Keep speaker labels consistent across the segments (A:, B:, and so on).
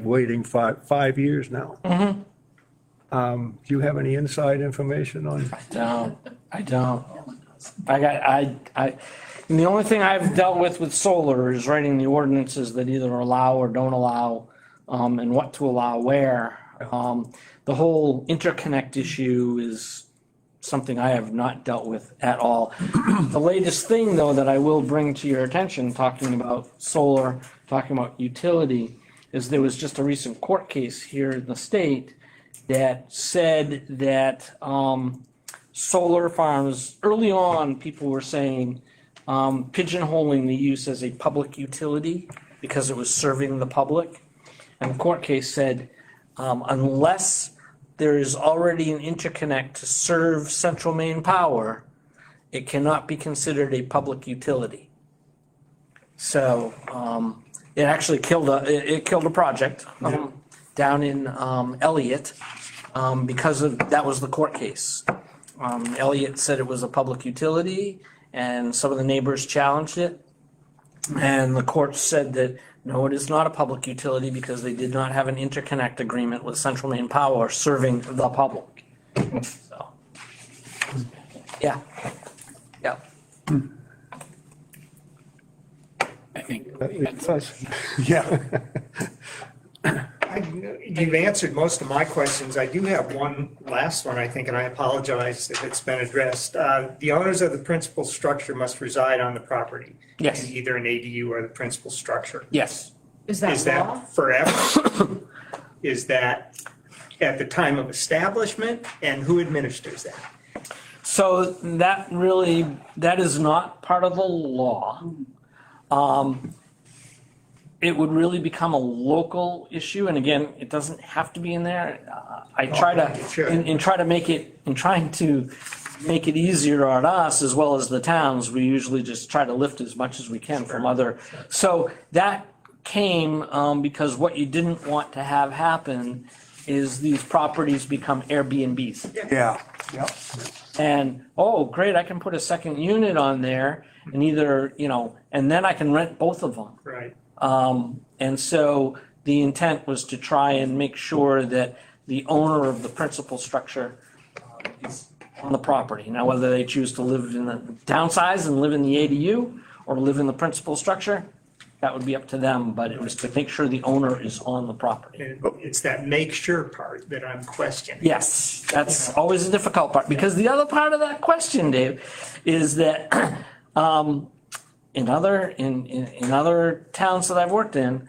A: waiting five, five years now.
B: Mm-hmm.
A: Um, Do you have any inside information on,
C: I don't, I don't. I got, I, I, and the only thing I've dealt with with solar is writing the ordinances that either allow or don't allow, um, and what to allow where. Um, the whole interconnect issue is something I have not dealt with at all. The latest thing, though, that I will bring to your attention, talking about solar, talking about utility, is there was just a recent court case here in the state that said that, um, solar farms, early on, people were saying, um, pigeonholing the use as a public utility because it was serving the public. And the court case said, um, unless there is already an interconnect to serve central main power, it cannot be considered a public utility. So, um, it actually killed a, it, it killed a project, um, down in, um, Elliott, um, because of, that was the court case. Um, Elliott said it was a public utility and some of the neighbors challenged it. And the court said that, no, it is not a public utility because they did not have an interconnect agreement with Central Maine Power serving the public. So, Yeah, yeah.
B: I think.
A: yeah,
D: I- You've answered most of my questions. I do have one last one, I think, and I apologize if it's been addressed. Uh, The owners of the principal structure must reside on the property.
C: Yes.
D: Either an ADU or the principal structure.
C: Yes.
E: Is
D: Is
E: that law?
D: that forever? Is that at the time of establishment? And who administers that?
C: So that really, that is not part of the law. Um, It would really become a local issue, and again, it doesn't have to be in there. Uh, I try to,
D: it should.
C: in, in try to make it, in trying to make it easier on us as well as the towns, we usually just try to lift as much as we can from other. So that came um, because what you didn't want to have happen is these properties become Airbnbs.
A: yeah, yeah.
C: And, oh, great, I can put a second unit on there and either, you know, and then I can rent both of them.
D: Right.
C: Um, and so the intent was to try and make sure that the owner of the principal structure uh, is on the property. Now, whether they choose to live in the downsize and live in the ADU or live in the principal structure, that would be up to them, but it was to make sure the owner is on the property.
D: And it's that make sure part that I'm questioning.
C: Yes, that's always a difficult part, because the other part of that question, Dave, is that, um, in other, in, in, in other towns that I've worked in,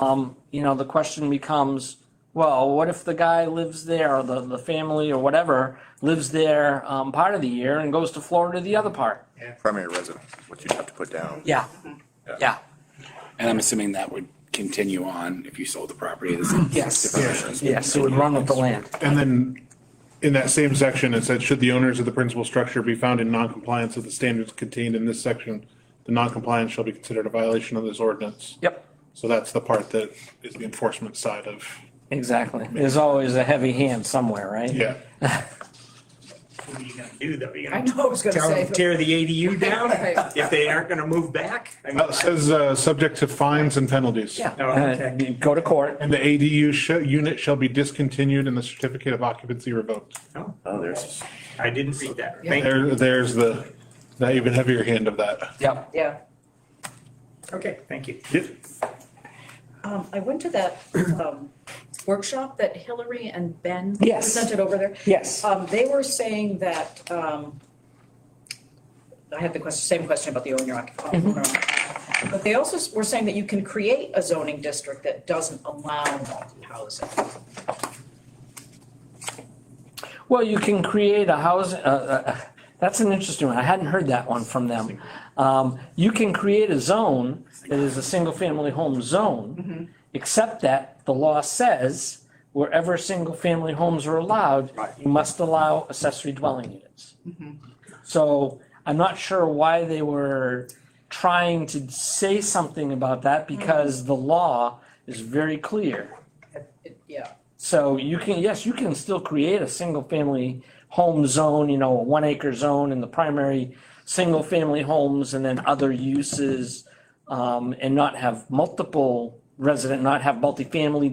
C: um, you know, the question becomes, well, what if the guy lives there, or the, the family, or whatever, lives there, um, part of the year and goes to Florida the other part?
F: primary residence, is what you'd have to put down.
C: Yeah, yeah,
B: And I'm assuming that would continue on if you sold the property. this is-
C: Yes.
B: Different-
C: yes, it would run with the land.
G: And then in that same section, it said, should the owners of the principal structure be found in noncompliance with the standards contained in this section, the noncompliance shall be considered a violation of this ordinance.
C: Yep,
G: So that's the part that is the enforcement side of,
C: exactly. There's always a heavy hand somewhere, right?
G: yeah.
D: What are you going to do though? You're
E: I
D: gonna
E: know, I was gonna
D: Tell
E: say.
D: them to tear the ADU down
E: Right.
D: if they aren't going to move back? I mean,
G: Well, It says, uh, subject to fines and penalties.
E: Yeah.
D: no,
C: Uh,
D: okay.
C: Go to court.
G: And the ADU sh- unit shall be discontinued and the certificate of occupancy revoked.
D: No,
F: Oh, there's.
D: I didn't read that. Thank you.
G: There, there's the, the even heavier hand of that.
C: Yep.
E: Yeah.
D: Okay, thank you.
E: Um, I went to that, um, workshop that Hillary and Ben
C: Yes.
E: presented over there.
C: Yes.
E: Um, they were saying that, um, I had the question, same question about the owner occupied.
C: Mm-hmm.
E: But they also s- were saying that you can create a zoning district that doesn't allow multi-housing.
C: Well, you can create a house, uh, uh, that's an interesting one. I hadn't heard that one from them. Um, you can create a zone that is a single-family home zone, except that the law says wherever single-family homes are allowed, you must allow accessory dwelling units. So I'm not sure why they were trying to say something about that because the law is very clear.
E: It- Yeah,
C: So you can, yes, you can still create a single-family home zone, you know, a one-acre zone in the primary single-family homes and then other uses, um, and not have multiple resident, not have multifamily